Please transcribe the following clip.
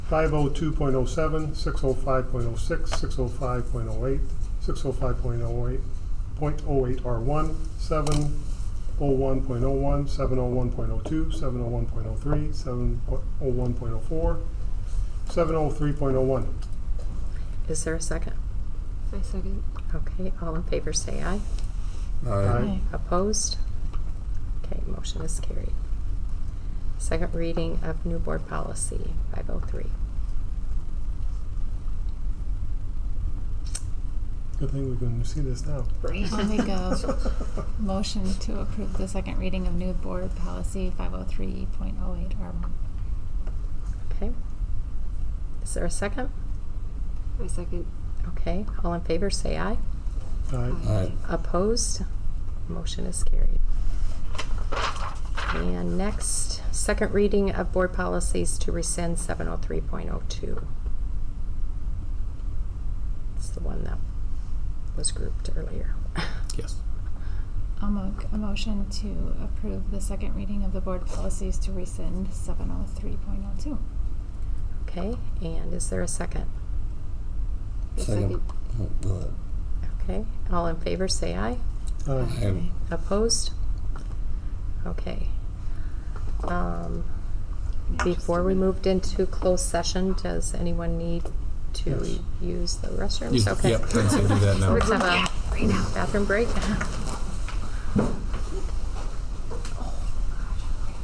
five oh two point oh seven, six oh five point oh six, six oh five point oh eight, six oh five point oh eight, point oh eight R one, seven oh one point oh one, seven oh one point oh two, seven oh one point oh three, seven oh one point oh four, seven oh three point oh one. Is there a second? I second. Okay, all in favor say aye. Aye. Opposed? Okay, motion is carried. Second reading of new board policy 503. Good thing we can see this now. Great. On we go. Motion to approve the second reading of new board policy 503.08R1. Okay. Is there a second? I second. Okay, all in favor say aye. Aye. Aye. Opposed? Motion is carried. And next, second reading of board policies to rescind 703.02. It's the one that was grouped earlier. Yes. I'll make a motion to approve the second reading of the board policies to rescind 703.02. Okay, and is there a second? I Second. Oh, good. Okay, all in favor say aye. Aye. Aye. Opposed? Okay. Um, Before we moved into closed session, does anyone need to Yes. use the restrooms? Use the- Okay. Yep, I'm gonna do that now. Let's have a bathroom break.